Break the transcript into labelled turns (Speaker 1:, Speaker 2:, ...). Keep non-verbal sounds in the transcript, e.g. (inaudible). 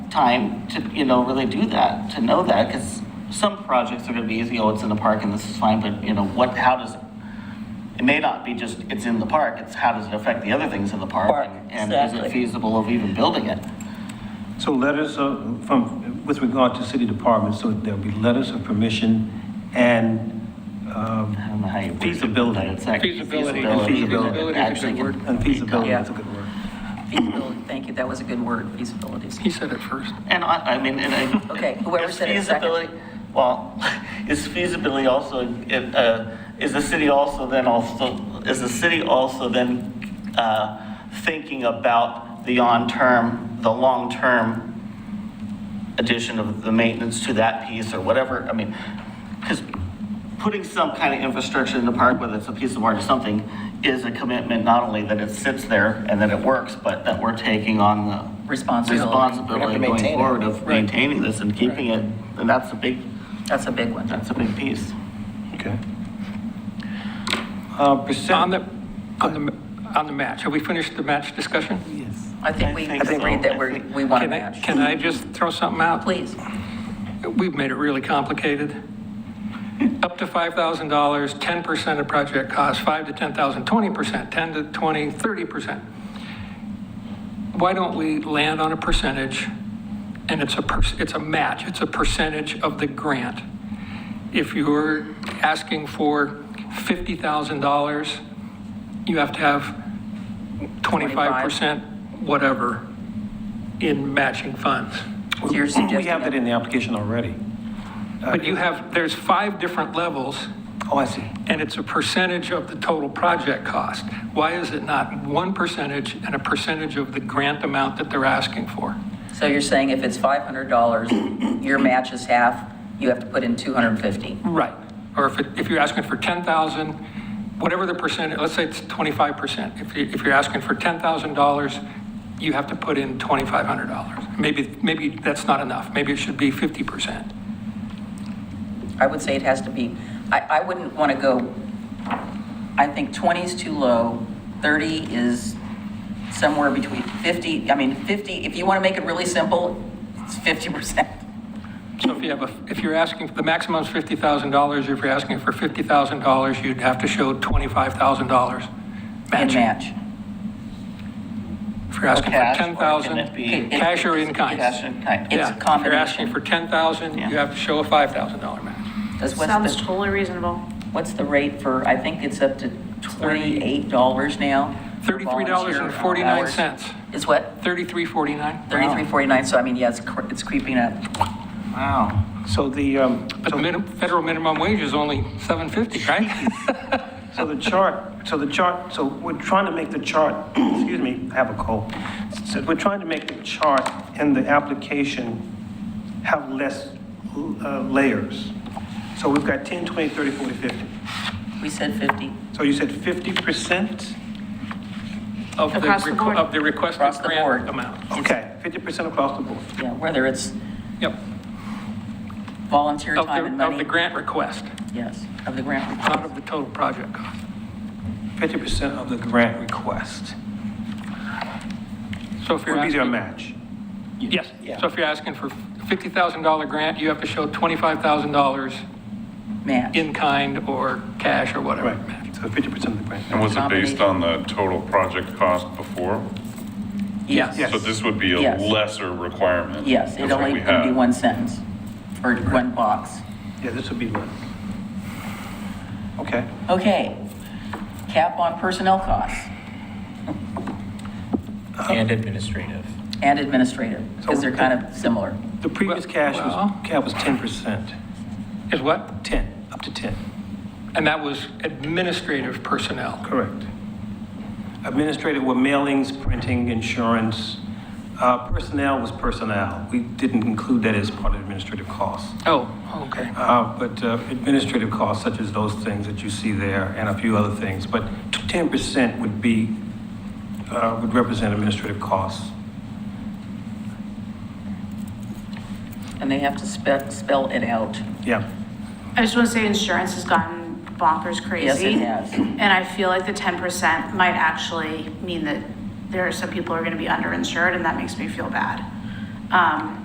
Speaker 1: time to, you know, really do that, to know that, because some projects are gonna be easy, oh, it's in the park and this is fine, but, you know, what, how does, it may not be just, it's in the park, it's how does it affect the other things in the park?
Speaker 2: Park,
Speaker 1: and- And is
Speaker 2: exactly.
Speaker 1: it feasible of even building it?
Speaker 3: So letters of, from, with regard to city departments, so there'll be letters of permission and,
Speaker 1: I
Speaker 3: um,
Speaker 1: don't know how you. word it,
Speaker 3: Feasibility.
Speaker 1: but it's actually
Speaker 4: Feasibility.
Speaker 3: Feasibility
Speaker 4: is a good
Speaker 1: Actually can
Speaker 4: word.
Speaker 3: and feasibility,
Speaker 2: Yeah.
Speaker 3: that's a good word.
Speaker 2: Feasibility, thank you, that was a good word, feasibility.
Speaker 4: He said it first.
Speaker 1: And I, I mean, and I.
Speaker 2: (laughs) Okay, whoever
Speaker 1: is
Speaker 2: said it second.
Speaker 1: feasibility- Well, (laughs) is feasibility also, it, uh, is the city also then also, is the city also then, uh, thinking about the on-term, the long-term addition of the maintenance to that piece or whatever, I mean, because putting some kind of infrastructure in the park, whether it's a piece of art or something, is a commitment not only that it sits there and that it works, but that we're taking on the.
Speaker 2: Responsibility.
Speaker 5: We have
Speaker 1: Responsibility
Speaker 5: to
Speaker 1: going
Speaker 5: maintain it.
Speaker 1: forward of
Speaker 4: Right.
Speaker 1: maintaining this and keeping it, and that's a big,
Speaker 2: That's a big one.
Speaker 1: that's a big piece.
Speaker 3: Okay. Uh,
Speaker 4: On
Speaker 3: percent,
Speaker 4: the, on the, on the match, have we finished the match discussion?
Speaker 2: I think
Speaker 1: I
Speaker 2: we
Speaker 1: think so.
Speaker 2: agreed that we're, we want to
Speaker 4: Can I-
Speaker 2: match. Uh,
Speaker 4: Can I just throw something out?
Speaker 2: Please,
Speaker 4: We've made it really complicated. Up to $5,000, 10% of project cost, 5 to 10,000, 20%, 10 to 20, 30%. Why don't we land on a percentage? And it's a, per- it's a match, it's a percentage of the grant. If you're asking for $50,000, you have to have 25%, whatever, in matching funds.
Speaker 2: So you're
Speaker 3: (coughs) we have that
Speaker 2: suggesting,
Speaker 3: in the application already.
Speaker 4: But you have, there's five different levels,
Speaker 3: Oh, I see.
Speaker 4: and it's a percentage of the total project cost. Why is it not one percentage and a percentage of the grant amount that they're asking for?
Speaker 2: so you're saying if it's $500, your match is half, you have to put in 250.
Speaker 4: Right. Or if, it- if you're asking for 10,000, whatever the percent, let's say it's 25%. If you, if you're asking for $10,000, you have to put in $2,500. Maybe, maybe that's not enough. Maybe it should be 50%.
Speaker 2: I would say it has to be, I, I wouldn't want to go, I think 20 is too low, 30 is somewhere between 50, I mean, 50, if you want to make it really simple, it's 50%.
Speaker 4: So if you have a, if you're asking, the maximum is $50,000, if you're asking for $50,000, you'd have to show $25,000
Speaker 2: And
Speaker 4: matching.
Speaker 2: match.
Speaker 4: If you're asking for
Speaker 1: Cash, or can it be-
Speaker 4: $10,000, cash or in kind.
Speaker 1: Cash in kind.
Speaker 2: It's a
Speaker 4: Yeah. If you're
Speaker 2: combination.
Speaker 4: asking for $10,000,
Speaker 1: Yeah.
Speaker 4: you have to show a $5,000 match.
Speaker 2: Does- What's
Speaker 6: Sounds
Speaker 2: the,
Speaker 6: totally reasonable.
Speaker 2: what's the rate for, I think it's up to $28 now? for volunteer hours.
Speaker 4: $33.49,
Speaker 2: Is what?
Speaker 4: $33.49.
Speaker 2: 33.49, so I mean, yeah, it's cre- it's creeping up.
Speaker 1: Wow.
Speaker 3: So the, um,
Speaker 4: But the minimum, federal minimum wage is only $7.50, right?
Speaker 3: So the chart, so the chart, so we're trying to make the chart, (clears throat) excuse me, I have a cold. So we're trying to make the chart and the application have less uh, layers. So we've got 10, 20, 30, 40, 50.
Speaker 2: We said 50.
Speaker 3: So you said 50%?
Speaker 4: Of the
Speaker 6: Across the
Speaker 4: requ-
Speaker 6: board.
Speaker 4: Of the requested
Speaker 2: Across the board.
Speaker 4: grant amount.
Speaker 3: Okay, 50% across the board.
Speaker 2: Yeah, whether it's
Speaker 4: Yep.
Speaker 2: volunteer
Speaker 4: Of
Speaker 2: time and
Speaker 4: the, of the
Speaker 2: money.
Speaker 4: grant request,
Speaker 2: Yes, of the grant.
Speaker 4: not of the total project cost.
Speaker 3: 50% of the grant request
Speaker 4: So if you're
Speaker 3: would be their
Speaker 4: asking,
Speaker 3: match.
Speaker 4: yes, so if you're asking for $50,000 grant, you have to show $25,000
Speaker 2: match.
Speaker 4: in kind or cash or whatever.
Speaker 3: Right, so 50% of the grant.
Speaker 7: And was it based
Speaker 2: Nomination.
Speaker 7: on the total project cost before?
Speaker 2: Yes.
Speaker 3: Yes.
Speaker 7: So this would be a
Speaker 2: Yes.
Speaker 7: lesser requirement.
Speaker 2: Yes,
Speaker 7: than
Speaker 2: it
Speaker 7: what
Speaker 2: only
Speaker 7: we
Speaker 2: can be
Speaker 7: had.
Speaker 2: one sentence or one box.
Speaker 3: Yeah, this would be one. Okay.
Speaker 2: Okay, cap on personnel costs
Speaker 5: And administrative.
Speaker 2: and administrative, because they're kind of similar.
Speaker 3: The previous cash was,
Speaker 4: Well-
Speaker 3: cap was 10%,
Speaker 4: Is what?
Speaker 3: 10, up to 10.
Speaker 4: And that was administrative personnel.
Speaker 3: Correct. Administrative were mailings, printing, insurance. Uh, Personnel was personnel. We didn't include that as part of administrative costs.
Speaker 4: Oh, okay.
Speaker 3: Uh, But uh, administrative costs, such as those things that you see there and a few other things, but t- 10% would be, uh, would represent administrative costs.
Speaker 2: And they have to spell, spell it out.
Speaker 3: Yeah.
Speaker 6: I just want to say insurance has gotten bonkers
Speaker 2: Yes,
Speaker 6: crazy.
Speaker 2: it has.
Speaker 6: And I feel like the ten percent might actually mean that there are some people who are going to be underinsured, and that makes me feel bad. Um,